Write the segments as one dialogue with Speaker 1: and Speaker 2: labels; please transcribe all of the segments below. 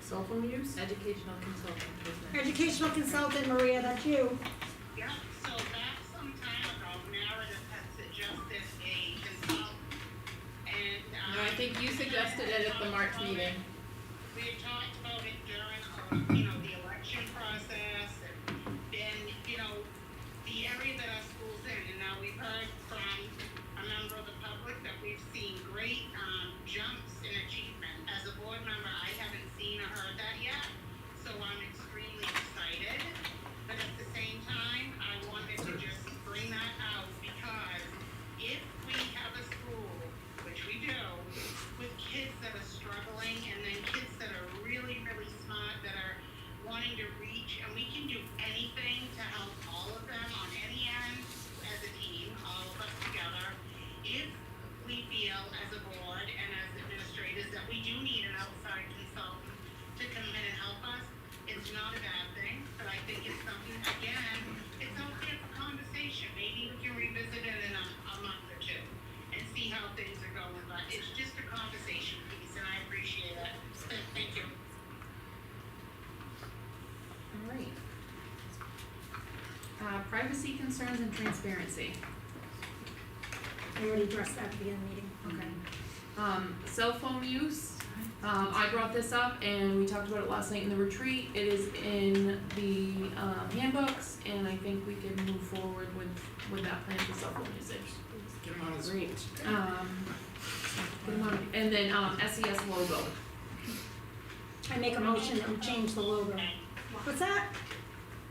Speaker 1: cell phone use?
Speaker 2: Educational consultant business.
Speaker 3: Educational consultant, Maria, that's you.
Speaker 4: Yep, so back some time ago, Meredith had suggested a consult, and, um.
Speaker 2: No, I think you suggested it at the March meeting.
Speaker 4: We had talked about it during, um, you know, the election process, and then, you know, the area that our school's in, and now we've heard from a member of the public that we've seen great, um, jumps in achievement. As a board member, I haven't seen or heard that yet, so I'm extremely excited. But at the same time, I wanted to just bring that out because if we have a school, which we do, with kids that are struggling and then kids that are really, really smart, that are wanting to reach, and we can do anything to help all of them on any end as a team, all of us together. If we feel as a board and as administrators that we do need an outside consultant to come in and help us, it's not a bad thing, but I think it's something, again, it's out there for conversation. Maybe we can revisit it in a, a month or two and see how things are going, but it's just a conversation piece, and I appreciate it. Thank you.
Speaker 2: All right. Uh, privacy concerns and transparency.
Speaker 3: I already addressed that at the beginning of the meeting.
Speaker 2: Okay. Um, cell phone use, um, I brought this up and we talked about it last night in the retreat. It is in the, um, handbooks and I think we can move forward with, with that plan for cell phone usage.
Speaker 1: Get them out of the schools.
Speaker 2: Um, good one. and then, um, SES logo.
Speaker 3: I make a motion that we change the logo. What's that?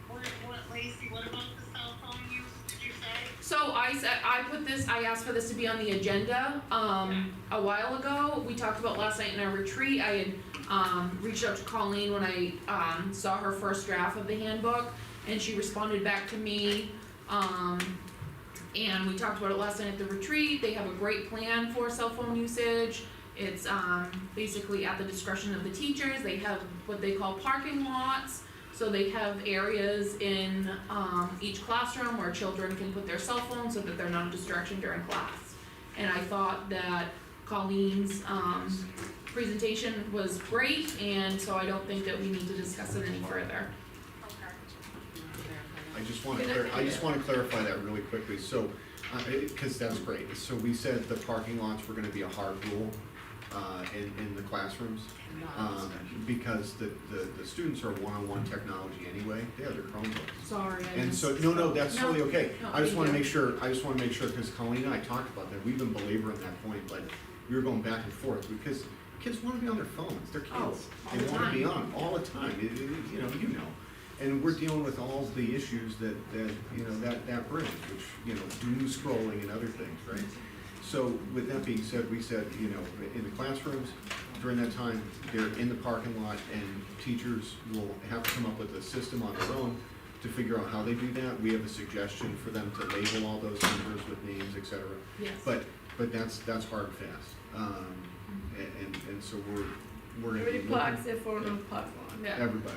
Speaker 4: What, what, Lacey, what about the cell phone use, did you say?
Speaker 2: So I said, I put this, I asked for this to be on the agenda, um, a while ago, we talked about last night in our retreat, I had, um, reached out to Colleen when I, um, saw her first draft of the handbook, and she responded back to me, um, and we talked about it last night at the retreat, they have a great plan for cell phone usage, it's, um, basically at the discretion of the teachers, they have what they call parking lots, so they have areas in um, each classroom where children can put their cell phones so that they're not a distraction during class. And I thought that Colleen's um, presentation was great, and so I don't think that we need to discuss it any further.
Speaker 4: Okay.
Speaker 5: I just wanna clar- I just wanna clarify that really quickly, so, uh, it- cause that's great, so we said the parking lots were gonna be a hard rule, uh, in, in the classrooms. Um, because the, the, the students are one-on-one technology anyway, they have their Chromebooks.
Speaker 2: Sorry, I
Speaker 5: And
Speaker 2: just-
Speaker 5: so, no, no, that's
Speaker 2: No,
Speaker 5: totally okay.
Speaker 2: no,
Speaker 5: I just
Speaker 2: thank
Speaker 5: wanna
Speaker 2: you.
Speaker 5: make sure, I just wanna make sure, cause Colleen and I talked about that, we've been belaboring that point, but we were going back and forth, because kids wanna be on their phones, they're
Speaker 2: Oh,
Speaker 5: kids.
Speaker 2: all
Speaker 5: They
Speaker 2: the
Speaker 5: wanna be
Speaker 2: time.
Speaker 5: on all the time, It- it- it- you know, you know. And we're dealing with all the issues that, that, you know, that, that brings, which, you know, doom scrolling and other things, right? So with that being said, we said, you know, in the classrooms, during that time, they're in the parking lot and teachers will have to come up with a system on their own to figure out how they do that. We have a suggestion for them to label all those numbers with names, et cetera.
Speaker 2: Yes.
Speaker 5: But, but that's, that's hard and fast. Um, a- and, and so we're, we're gonna be
Speaker 6: Everybody
Speaker 5: looking-
Speaker 6: plugs their phone on the plug one.
Speaker 2: Yeah, Uh,
Speaker 5: Everybody,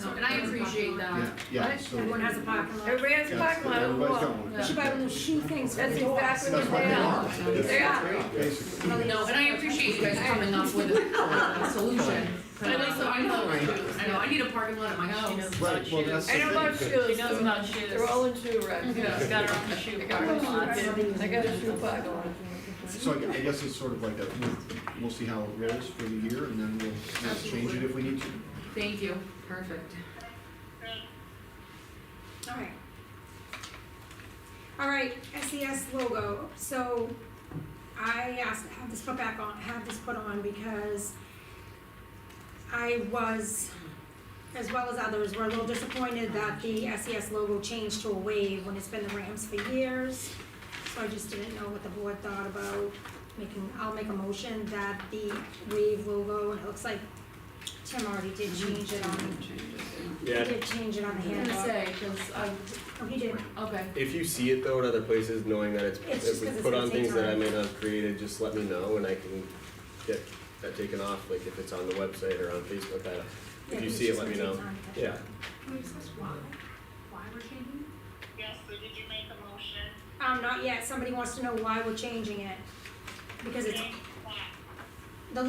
Speaker 2: no, and I appreciate
Speaker 5: yeah,
Speaker 2: that.
Speaker 5: yeah,
Speaker 6: Right?
Speaker 5: so.
Speaker 3: Everyone has a parking lot.
Speaker 6: Everybody has a
Speaker 5: Yes,
Speaker 6: plug one on the
Speaker 5: everybody's
Speaker 6: wall.
Speaker 5: got one.
Speaker 2: Yeah.
Speaker 3: We should buy one of those shoe things for
Speaker 6: That's
Speaker 3: the door.
Speaker 6: exactly
Speaker 5: That's what they are. That's
Speaker 6: They
Speaker 5: what
Speaker 6: are.
Speaker 5: Basically.
Speaker 2: No, and I appreciate you guys coming up with a a solution. But at least I know, I know, I need a parking lot at my house.
Speaker 5: Right, well, that's the
Speaker 6: I
Speaker 5: thing.
Speaker 6: don't love shoes.
Speaker 7: She knows about shoes.
Speaker 6: They're all in shoe racks.
Speaker 2: Yeah.
Speaker 7: She's got her own shoe
Speaker 6: I got a shoe rack.
Speaker 7: box.
Speaker 6: I got a shoe box.
Speaker 5: So I gue- I guess it's sort of like a, we'll, we'll see how it rolls for the year and then we'll, we'll change it if we need to.
Speaker 2: Thank you, perfect.
Speaker 4: Good.
Speaker 3: All right. All right, SES logo, so I asked, to have this put back on, have this put on because I was, as well as others, were a little disappointed that the SES logo changed to a wave when it's been the Rams for years. So I just didn't know what the board thought about making, I'll make a motion that the wave logo, and it looks like Tim already did change it on, he
Speaker 8: Yeah,
Speaker 3: did change it on the
Speaker 2: I'm gonna
Speaker 3: handbook.
Speaker 2: say, 'cause I,
Speaker 3: Oh, he did,
Speaker 2: okay.
Speaker 8: if you see it though in other places, knowing that it's,
Speaker 3: It's just
Speaker 8: if we
Speaker 3: 'cause it's
Speaker 8: put
Speaker 3: gonna
Speaker 8: on
Speaker 3: take
Speaker 8: things that I
Speaker 3: time.
Speaker 8: may not have created, just let me know and I can get that taken off, like if it's on the website or on Facebook, I,
Speaker 3: Yeah,
Speaker 8: if you
Speaker 3: it's
Speaker 8: see it,
Speaker 3: just
Speaker 8: let me
Speaker 3: gonna
Speaker 8: know.
Speaker 3: take time.
Speaker 8: Yeah,
Speaker 4: Yes, so did you make a motion?
Speaker 3: Um, not yet, somebody wants to know why we're changing it. Because it's,
Speaker 4: Okay.